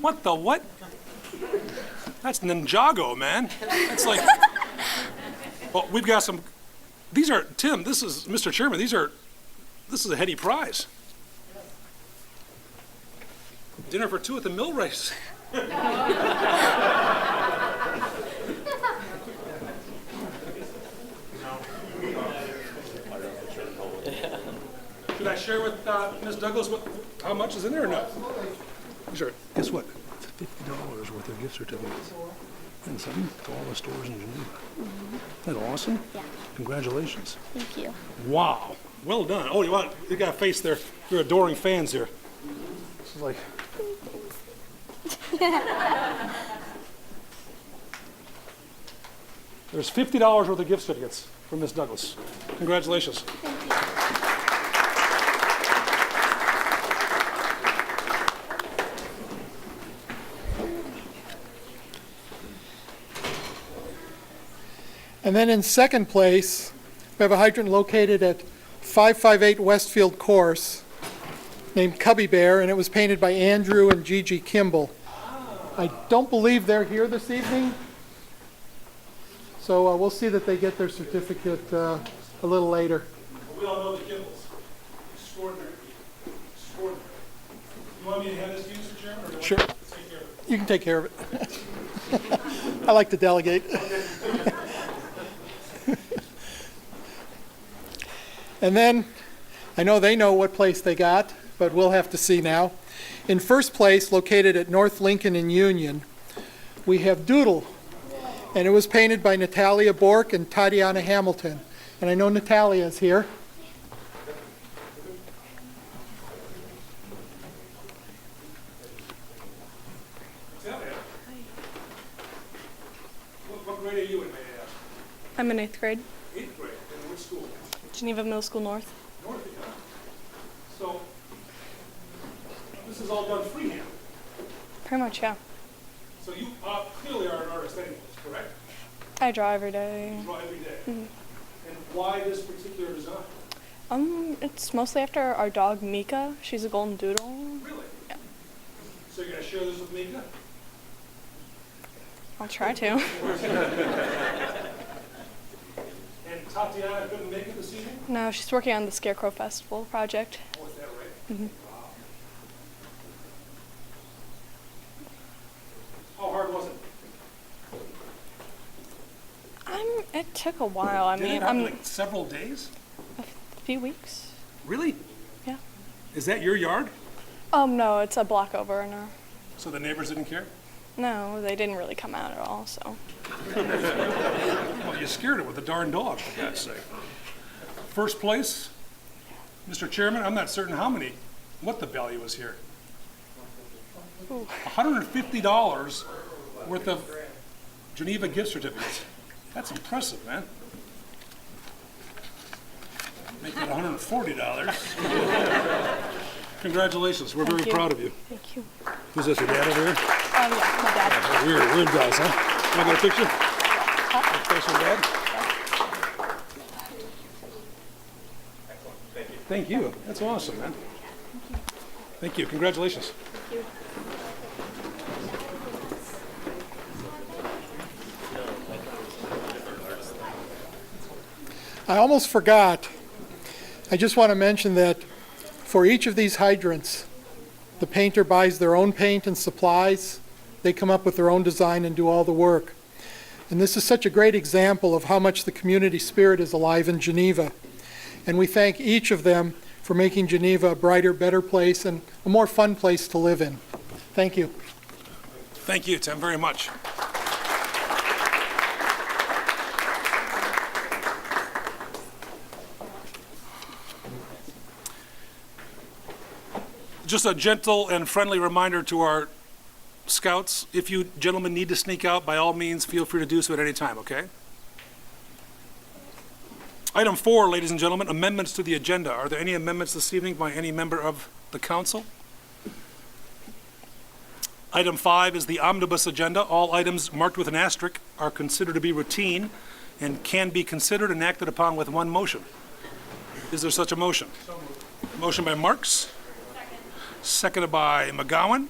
What the what? That's Ninjago, man. That's like. well, we've got some. These are Tim. This is Mr. Chairman. These are. This is a heady prize. Dinner for two at the mill race. Should I share with uh, Ms. Douglas what, how much is in there or no? These are, guess what? Fifty dollars worth of gift certificates. And some to all the stores in Geneva. Isn't that awesome? Yeah. Congratulations. Thank you. Wow. Well done. Oh, you want, you got a face there. You're adoring fans here. This is like. There's fifty dollars worth of gift certificates from Miss Douglas. Congratulations. And then in second place, we have a hydrant located at 558 Westfield Course named Cubby Bear, and it was painted by Andrew and Gigi Kimball. I don't believe they're here this evening, so uh, we'll see that they get their certificate uh, a little later. We all know the Kimballs. Extraordinary. Extraordinary. You want me to hand this to you, Mr. Chairman, or do you want Sure. to take care of it? You can take care of it. I like to delegate. And then, I know they know what place they got, but we'll have to see now. In first place, located at North Lincoln and Union, we have Doodle. And it was painted by Natalia Bork and Tatiana Hamilton. And I know Natalia's here. Tell you. What, what grade are you in, may I ask? I'm in eighth grade, Eighth grade, in which school? Geneva Middle School North. North, huh? So, this is all done freehand. Pretty much, yeah. So you are, clearly are an artist anyways, correct? I draw every day. You draw every day. And why this particular design? Um, it's mostly after our dog Mika. She's a golden doodle. Really? So you're gonna share this with Mika? I'll try to. And Tatiana couldn't make it this evening? no, she's working on the Scarecrow Festival project. Oh, is that right? Wow. How hard was it? I'm. It took a while. I Did it mean, happen I'm like several days? a few weeks. Really? Yeah. Is that your yard? Um, no, it's a block over, and uh, So the neighbors didn't care? no, they didn't really come out at all. So Well, you scared it with a darn dog, for God's sake. First place, Mr. Chairman, I'm not certain how many, what the value is here. $150 worth of Geneva gift certificates. That's impressive, man. Make that $140. Congratulations, we're very Thank you. proud of you. thank you. Who's this, your dad over here? Um, yeah, my dad. Weird, weird guys, huh? Can I get a picture? Thanks for that. Thank you. That's awesome, man. Thank you. Congratulations. I almost forgot. I just want to mention that for each of these hydrants, the painter buys their own paint and supplies. They come up with their own design and do all the work. And this is such a great example of how much the community spirit is alive in Geneva. And we thank each of them for making Geneva a brighter, better place and a more fun place to live in. Thank you. Thank you, Tim, very much. Just a gentle and friendly reminder to our scouts, if you gentlemen need to sneak out, by all means, feel free to do so at any time, okay? Item four, ladies and gentlemen, amendments to the agenda. Are there any amendments this evening by any member of the council? Item five is the omnibus agenda. All items marked with an asterisk are considered to be routine and can be considered and acted upon with one motion. Is there such a motion? Motion by Marks. Seconded by McGowan.